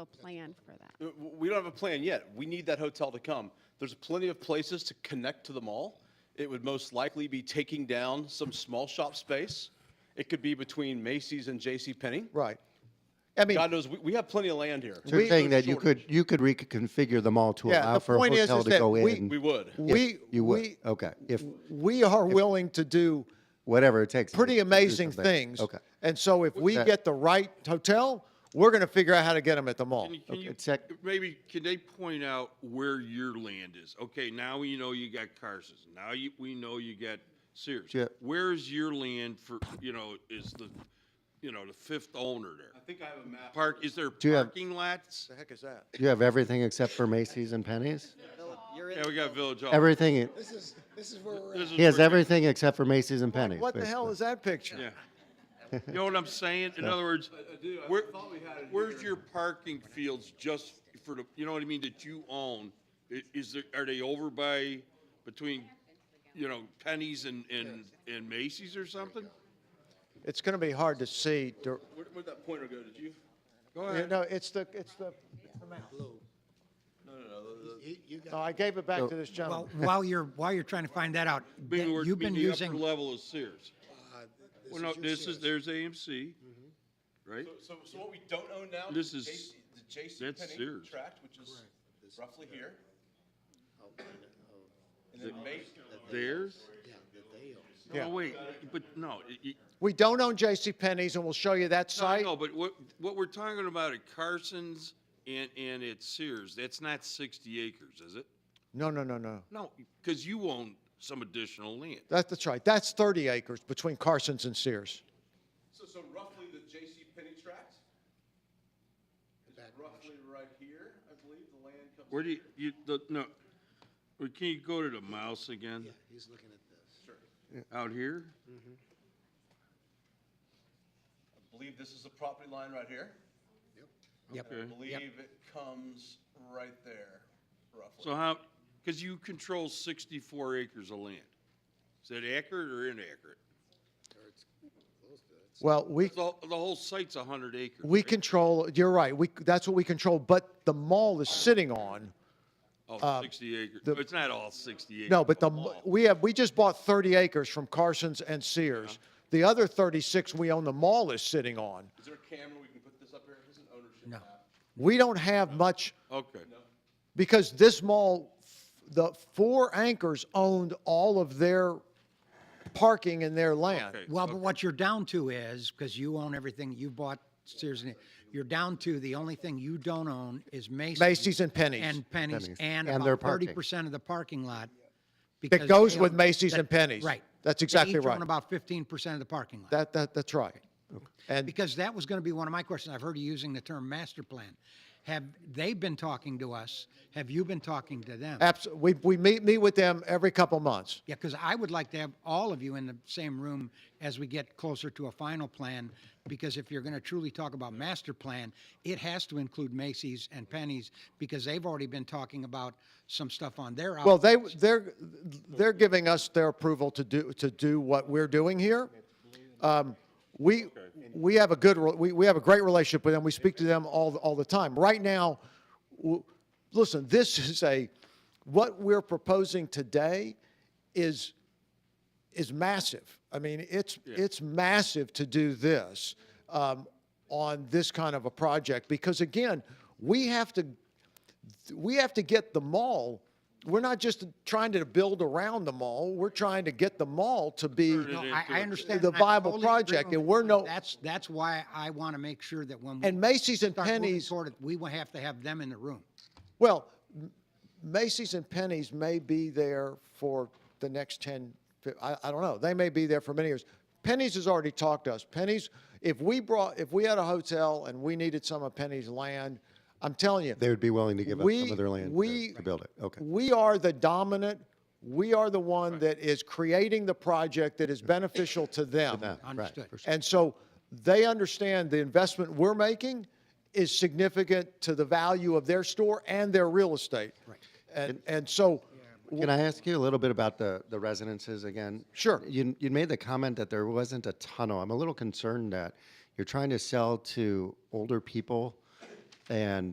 a plan for that. Uh, w- We don't have a plan yet. We need that hotel to come. There's plenty of places to connect to the mall. It would most likely be taking down some small shop space. It could be between Macy's and J.C. Penney. Right. I mean, God knows, we, we have plenty of land here. So you're saying that you could, you could reconfigure them all to Yeah, allow the for a point is- hotel is to that go we- We in, would. we, you would, we, okay, if, we are willing to do whatever it takes. to pretty do amazing something. things. Okay. And so if we That- get the right hotel, we're going to figure out how to get them at the mall. Can you- Okay, check. Maybe, can they point out where your land is? Okay, now we know you got Carson's, now you, we know you got Sears. Yeah. Where's your land for, you know, is the, you know, the fifth owner there? think I have a map. Park, is there you have- parking lots? The heck is that? You have everything except for Macy's and Penny's? Yeah, we got Village Hall. Everything, This is, this is where we're This at. is he has where- everything except for Macy's and Penny's. What the hell basically. is that picture? Yeah. You know what I'm saying? In other words, do. I where, thought we had it where's your parking fields just for the, you know what I mean, that you own? I- Is there, are they over by, between, you know, Penny's and, and, and Macy's or something? It's going to be hard to see. dir- Where, where'd that pointer go? Did you? Go You ahead. know, it's the, it's the, No, no, no. You, you got no, I gave it back to this Well, gentleman. while you're, while you're trying to find that out, Being that where- you've been being the upper using, Level is Sears. uh, this Well, no, your this is, series. there's AMC, right? Mm-hmm. So, so what we don't own now? This is is- JC the that's JCPenney Sears. tract, which is roughly here. Oh, I know. Oh, And then Macy's. Theirs? yeah, that they own. Yeah. No, wait, but no, it- it- We don't own J.C. Penney's, and we'll show you that No, I site. know, but what, what we're talking about at Carson's and, and at Sears, that's not sixty acres, is it? No, no, no, no. No, because you own some additional land. That's, that's right. That's 30 acres between Carson's and Sears. So, so roughly the J.C. Penney tract is roughly right here, I believe, the land comes. Where do you, you, the, no, well, can you go to the mouse again, Yeah, he's looking at this. out here? I believe this is the property line right here. yep, I Okay. believe it comes right there, So roughly. how, because you control sixty-four acres of land. Is that accurate or inaccurate? Well, we, The, the whole site's hundred acres. we right? control, you're right, we, that's what we control, but the mall is sitting on, Oh, sixty acres. um, the- It's not all sixty acres. no, but the, m- mall. we have, we just bought 30 acres from Carson's and Sears. The other 36 we own, the mall is sitting on. Is there a camera we can put this up here? This is an ownership No. map. We don't have much, Okay. because this mall, the four anchors owned all of their parking and their land. Okay. Well, but what you're down to is, because you own everything, you bought Sears, and- you're down to, the only thing you don't own is Macy's. Macy's and Penny's. And Penny's, Penny's. and And their about parking. thirty percent of the parking lot. That because goes they with own- Macy's that- and Penny's. Right. That's They exactly each own right. about fifteen percent of the parking lot. That, that, that's right. And Because that was going to be one of my questions. I've heard you using the term master plan. Have they been talking to us? Have you been talking to them? abs, we, we meet, meet with them every couple months. Yeah, because I would like to have all of you in the same room as we get closer to a final plan, because if you're going to truly talk about master plan, it has to include Macy's and Penny's, because they've already been talking about some stuff on their Well, outlets. they, they're, they're giving us their approval to do, to do what we're doing here. Um, We, we have a good, re- we, we have a great relationship with them. We speak to them all, the- all the time. Right now, w- listen, this is a, what we're proposing today is, is massive. I mean, it's, it's massive to do this um, on this kind of a project, because again, we have to we have to get the mall. We're not just trying to build around the mall. We're trying to get the mall to be. No, I, I understand. The and I viable totally agree project, with and we're you. no- That's, that's why I want to make sure that when we. And Macy's and start moving Penny's, toward it, We will have to have them in the room. well, M- Macy's and Penny's may be there for the next 10, fif- I, I don't know. They may be there for many years. Penny's has already talked to us. Penny's, if we brought, if we had a hotel and we needed some of Penny's land, I'm telling you. They would be willing to give up some we- of their land we- to- to build it, okay. We are the dominant, we are the one that is creating the project that is beneficial to them. them, right, Understood. for sure. And so they understand the investment we're making is significant to the value of their store and their real estate. Right. And, and so, Can I ask you a little bit about the, the residences again? Sure. You, you made the comment that there wasn't a tunnel. I'm a little concerned that you're trying to sell to older people and